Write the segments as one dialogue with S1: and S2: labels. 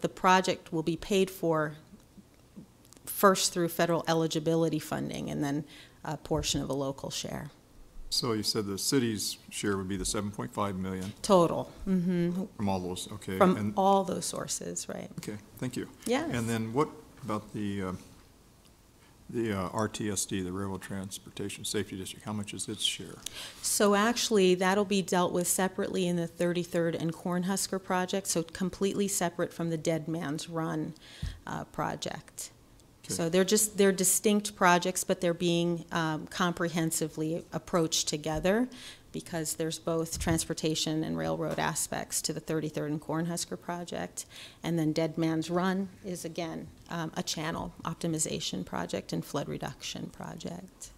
S1: The project will be paid for first through federal eligibility funding and then a portion of a local share.
S2: So you said the city's share would be the seven point five million
S1: Total, mhm,
S2: from all those, okay?
S1: from
S2: and-
S1: all those sources, right?
S2: Okay, thank you.
S1: Yes.
S2: And then what about the, uh, the uh, RTSD, the Railroad Transportation Safety District, how much is its share?
S1: So actually, that'll be dealt with separately in the 33rd and Cornhusker project, so completely separate from the Dead Man's Run uh, project.
S2: Okay.
S1: So they're just, they're distinct projects, but they're being um, comprehensively approached together because there's both transportation and railroad aspects to the 33rd and Cornhusker project. And then Dead Man's Run is again, um, a channel optimization project and flood reduction project.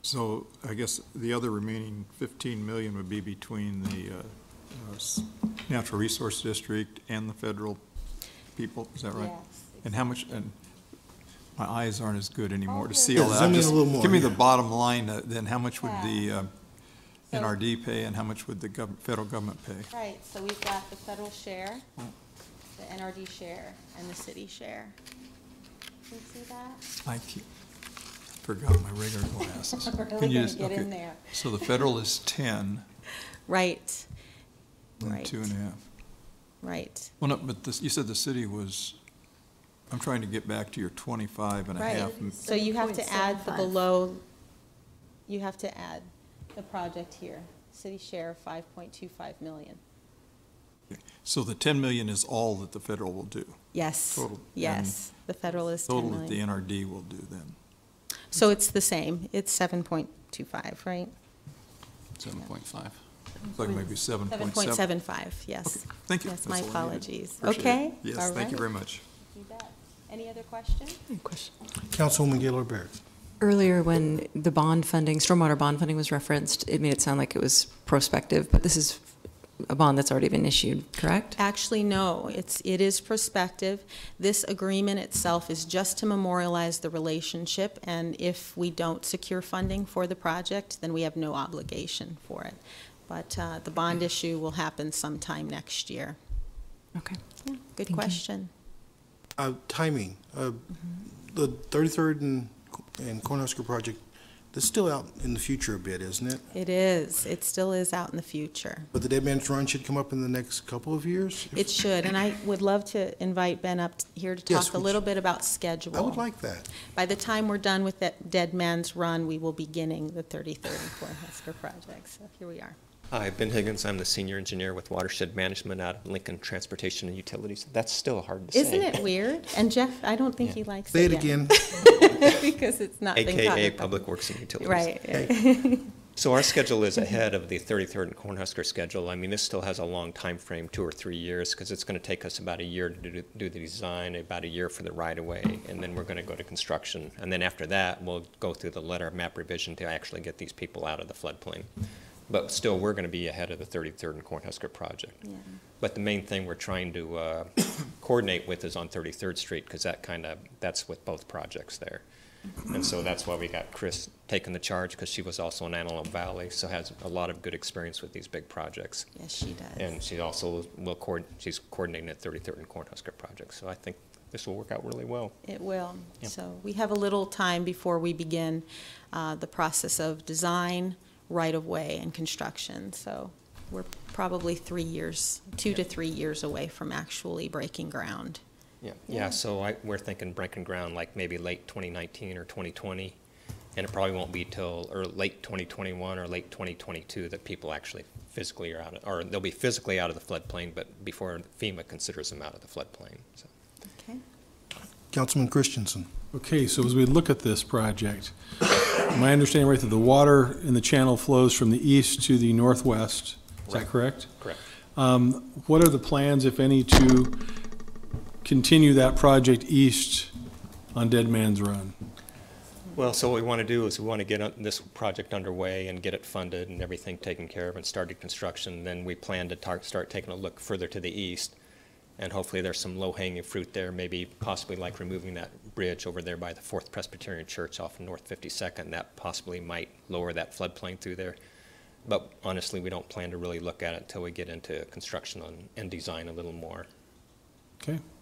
S2: So I guess the other remaining fifteen million would be between the uh, uh, s- Natural Resource District and the federal people, is that right? And how much, and my eyes aren't as good anymore to see
S3: Yeah,
S2: all that.
S3: zoom in a
S2: Just
S3: little more,
S2: Give me the
S3: yeah.
S2: bottom line, uh, then how much would the uh,
S1: Yeah.
S2: NRD pay and how much would the gov- federal government pay?
S1: Right, so we've got the federal share,
S2: Mm.
S1: the NRD share, and the city share. Can you see that?
S2: I keep- forgot my regular glasses.
S1: We're
S2: Can
S1: really
S2: you
S1: gonna
S2: just-
S1: get in
S2: okay.
S1: there.
S2: So the federal is ten
S1: Right,
S2: and
S1: Right.
S2: two and a half.
S1: right.
S2: Well, no, but this, you said the city was, I'm trying to get back to your twenty-five and a half.
S1: Right, so you have to add the
S4: 7.75.
S1: below, you have to add the project here, city share five point two five million.
S2: So the ten million is all that the federal will do.
S1: Yes,
S2: Total.
S1: yes, the federal is ten
S2: Total that the
S1: million.
S2: NRD will do then,
S1: So it's the same, it's seven point two five, right?
S5: Seven point five.
S2: It's like maybe seven
S1: Seven point seven five, yes.
S2: Okay, Thank you.
S1: Yes,
S2: That's
S1: my
S2: all I needed.
S1: apologies.
S2: Appreciate it.
S1: Okay?
S2: Yes,
S1: all
S2: thank you
S1: right.
S2: very much.
S1: You bet. Any other questions?
S3: Councilwoman Gaylor Baird.
S4: Earlier, when the bond funding, stormwater bond funding was referenced, it made it sound like it was prospective, but this is a bond that's already been issued, correct?
S1: Actually, no, it's, it is prospective. This agreement itself is just to memorialize the relationship, and if we don't secure funding for the project, then we have no obligation for it. But uh, the bond issue will happen sometime next year.
S4: Okay.
S1: Yeah, Good
S4: you.
S1: question.
S3: Uh, Timing, uh, the 33rd and and Cornhusker project, that's still out in the future a bit, isn't it?
S1: It is, it still is out in the future.
S3: But the Dead Man's Run should come up in the next couple of years?
S1: It should, and I would love to invite Ben up here to
S3: Yes,
S1: talk a
S3: we
S1: little bit about schedule.
S3: I would like that.
S1: By the time we're done with that Dead Man's Run, we will be beginning the 33rd and Cornhusker project, so here we are.
S6: Hi, Ben Higgins. I'm the senior engineer with Watershed Management out of Lincoln Transportation and Utilities. That's still hard to say.
S1: Isn't it weird? And Jeff, I don't think he likes
S3: Say
S1: it
S3: it
S1: yet.
S3: again.
S1: Because it's not been
S6: AKA
S1: codified.
S6: Public Works and Utilities.
S1: Right.
S6: So our schedule is ahead of the 33rd and Cornhusker schedule. I mean, this still has a long time frame, two or three years, because it's going to take us about a year to do, do the design, about a year for the right-of-way, and then we're going to go to construction. And then after that, we'll go through the letter of map revision to actually get these people out of the floodplain. But still, we're going to be ahead of the 33rd and Cornhusker project.
S1: Yeah.
S6: But the main thing we're trying to uh, coordinate with is on 33rd Street, because that kind of, that's with both projects there. And so that's why we got Chris taking the charge, because she was also in Antelope Valley, so has a lot of good experience with these big projects.
S1: Yes, she does.
S6: And she also will, coord- she's coordinating at 33rd and Cornhusker project, so I think this will work out really well.
S1: It will.
S6: Yeah.
S1: So we have a little time before we begin uh, the process of design, right-of-way, and construction. So we're probably three years, two to three years away from actually breaking ground.
S6: Yeah,
S1: Yeah.
S6: yeah, so I, we're thinking breaking ground like maybe late 2019 or 2020, and it probably won't be till, or late 2021 or late 2022 that people actually physically are out, of- or they'll be physically out of the floodplain, but before FEMA considers them out of the floodplain, so.
S1: Okay.
S3: Councilman Christensen.
S7: Okay, so as we look at this project, my understanding right that the water in the channel flows from the east to the northwest, is that
S6: Right.
S7: correct?
S6: Correct.
S7: Um, What are the plans, if any, to continue that project east on Dead Man's Run?
S6: Well, so what we want to do is we want to get uh, this project underway and get it funded and everything taken care of and started construction. Then we plan to tar- start taking a look further to the east. And hopefully there's some low-hanging fruit there, maybe possibly like removing that bridge over there by the Fourth Presbyterian Church off of North 52nd. That possibly might lower that floodplain through there. But honestly, we don't plan to really look at it until we get into construction on, and design a little more.
S7: Okay.